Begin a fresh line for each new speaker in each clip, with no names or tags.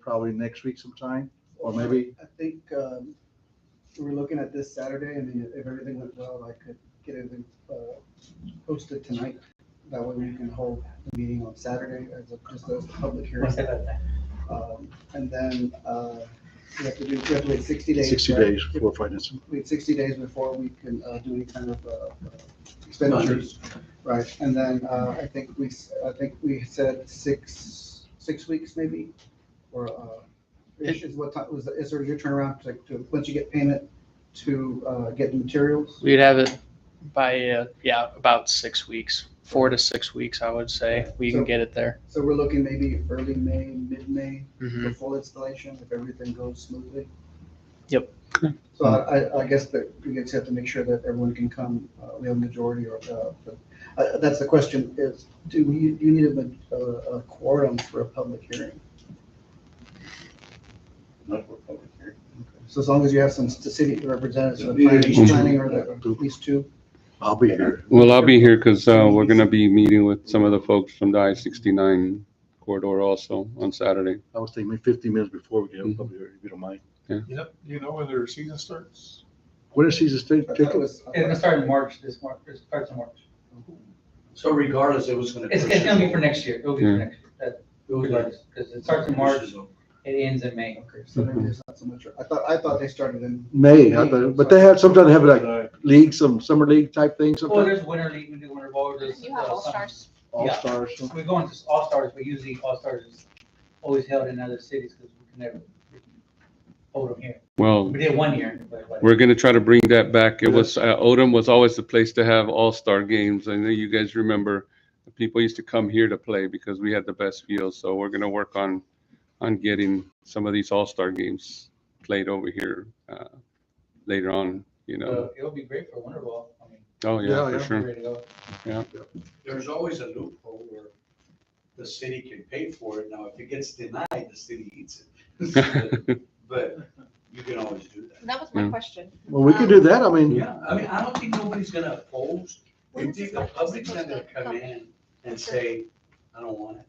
probably next week sometime, or maybe,
I think, um, we were looking at this Saturday, I mean, if everything went well, I could get everything, uh, posted tonight. That way we can hold the meeting on Saturday as a, just as a public hearing. Um, And then, uh, we have to do, we have to wait sixty days.
60
right?
days for finance.
wait sixty days before we can uh, do any kind of uh, uh, expenditures. Right, and then uh, I think we, s- I think we said six, six weeks maybe, or uh, is is what time, was, is there your turnaround, like, to, once you get payment to uh, get the materials?
We'd have it by, uh, yeah, about six weeks, four to six weeks, I would say. We can get it there.
So we're looking maybe early May, mid-May for
Mhm.
full installation, if everything goes smoothly.
Yep.
So I, I- I guess that we just have to make sure that everyone can come, uh, we have a majority or, uh, but, uh, that's the question is, do we, do you need a, ma- a- a quorum for a public hearing?
Not for public hearing.
So as long as you have some st- city representatives, or
Yeah,
planning,
you-
planning or the- at least two.
I'll be here.
Well, I'll be here because we're going to be meeting with some of the folks from the I-69 corridor also on Saturday.
I was thinking maybe fifteen minutes before we get up, I'll be here, if you don't mind.
Yep, you know when their season starts?
What is season state,
I thought it
Jacob?
was- uh,
It's gonna start in March, this March, it starts in March.
So regardless, it was gonna.
It's, it's gonna be for next year, it'll be
Yeah.
for next year, that, regardless, because it starts in March, it ends in May.
Okay, so maybe it's not so much, I thought, I thought they started in,
May, I thought- but they have, sometimes they have like league, some summer league type thing,
Well,
sometimes,
Oh, there's winter league, we do winter ball, there's.
You have
uh,
all
some-
stars.
all-stars. something.
We go into all stars, but usually all stars is always held in other cities, because we can never hold them here.
Well,
We did one year, but. but-
we're going to try to bring that back. It was, uh, Odom was always the place to have all-star games. I know you guys remember, people used to come here to play because we had the best fields. So we're going to work on, on getting some of these all-star games played over here uh, later on, you know.
So It'll be great for winter ball, I mean,
Oh,
Yeah,
yeah,
Uh, yeah.
for sure.
ready to go.
There's always a loophole where the city can pay for it. Now, if it gets denied, the city eats it. But you can always do that.
That was my
Mm.
question.
Well, we could do that, I mean,
Yeah, I mean, I don't think nobody's gonna oppose. I
When
think
is this
the
laptop
public's not gonna
supposed to
come
come?
in and say, I don't want it.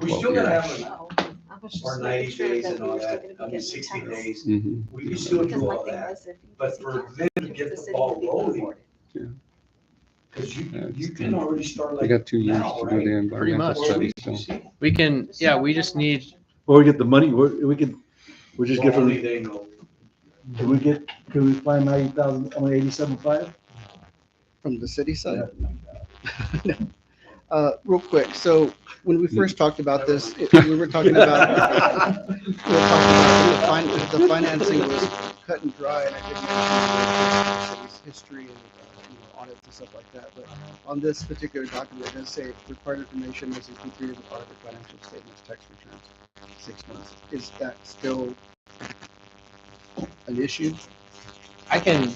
We
Well,
still gotta
yeah.
have an,
Oh, I was just
or
making
ninety
sure
days
that
and
we were
all
still
that,
gonna be
I mean,
getting
sixty
titles.
days.
Mhm.
We can still
Because
do
my
all
thing
that,
was if you
but
see
for
titles,
them to
it
get
was
the
city
ball
would be
rolling,
rewarded.
because
Yeah,
you,
it's
you can
true.
already start
They
like.
got two years
now,
to do the
right?
Pretty
environmental
much.
Or at
study,
least
so.
you see.
We can,
This is
yeah,
not
we
my
just
one
need,
question.
or we get the money, we, we could, we just get
Well,
from,
Only they know.
can we get, can we find ninety thousand, only eighty-seven five?
from the city side. Uh, real quick, so when we first talked about this, it- we were talking about We were talking about The fin- the financing was cut and dry, and I didn't mention the city's history and, uh, you know, audits and stuff like that, but on this particular document, it does say required information must include three of the audited financial statements, tax returns, six months. Is that still an issue?
I can,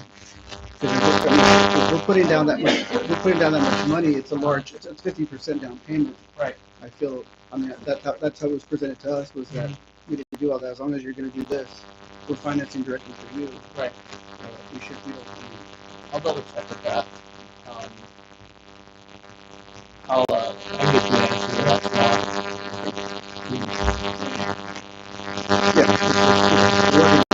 Because if we're, I mean, if we're putting down that much, if we're putting down that much money, it's a large, it's a fifty percent down payment.
Right.
I feel, I mean, that's how, that's how it was presented to us, was that
Mm-hmm.
we didn't do all that, as long as you're gonna do this, we're financing directly for you.
Right.
Uh, We should, we don't, I mean,
I'll double check with that. Um, I'll, uh, I'll get you an answer to that tomorrow.
yeah.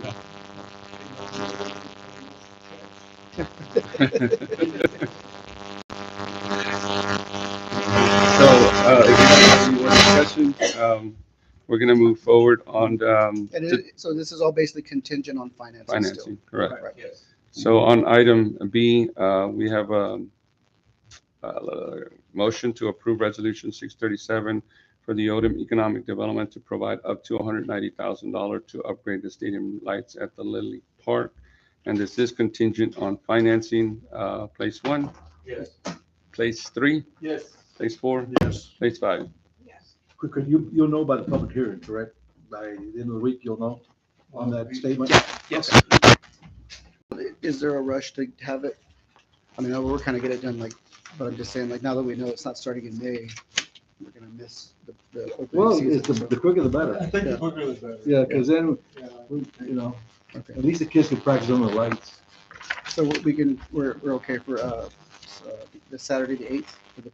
we're-
So, uh, if you have any more questions, um, we're gonna move forward on, um,
And
to
it, so this is all basically contingent on financing still.
financing, correct?
Right.
Yes.
So on item B, uh, we have, um, a motion to approve resolution six thirty-seven for the Odom Economic Development to provide up to hundred ninety thousand dollars to upgrade the stadium lights at the Lily Park. And this is contingent on financing, uh, place one,
Yes.
place three,
Yes.
place four,
Yes.
place five.
Could, you, you'll know by the public hearing, correct? By the end of the week, you'll know on that statement?
Yes.
Is there a rush to have it? I mean, we're kind of get it done like, but I'm just saying, like, now that we know it's not starting in May, we're gonna miss the, the
Well,
opening
it's the,
season.
the quicker the
I
better.
think the quicker the better.
Yeah, because then,
Yeah.
you know,
Okay.
at least the kids can practice on the lights.
So we can, we're, we're okay for, uh, uh, the Saturday, the eighth, for the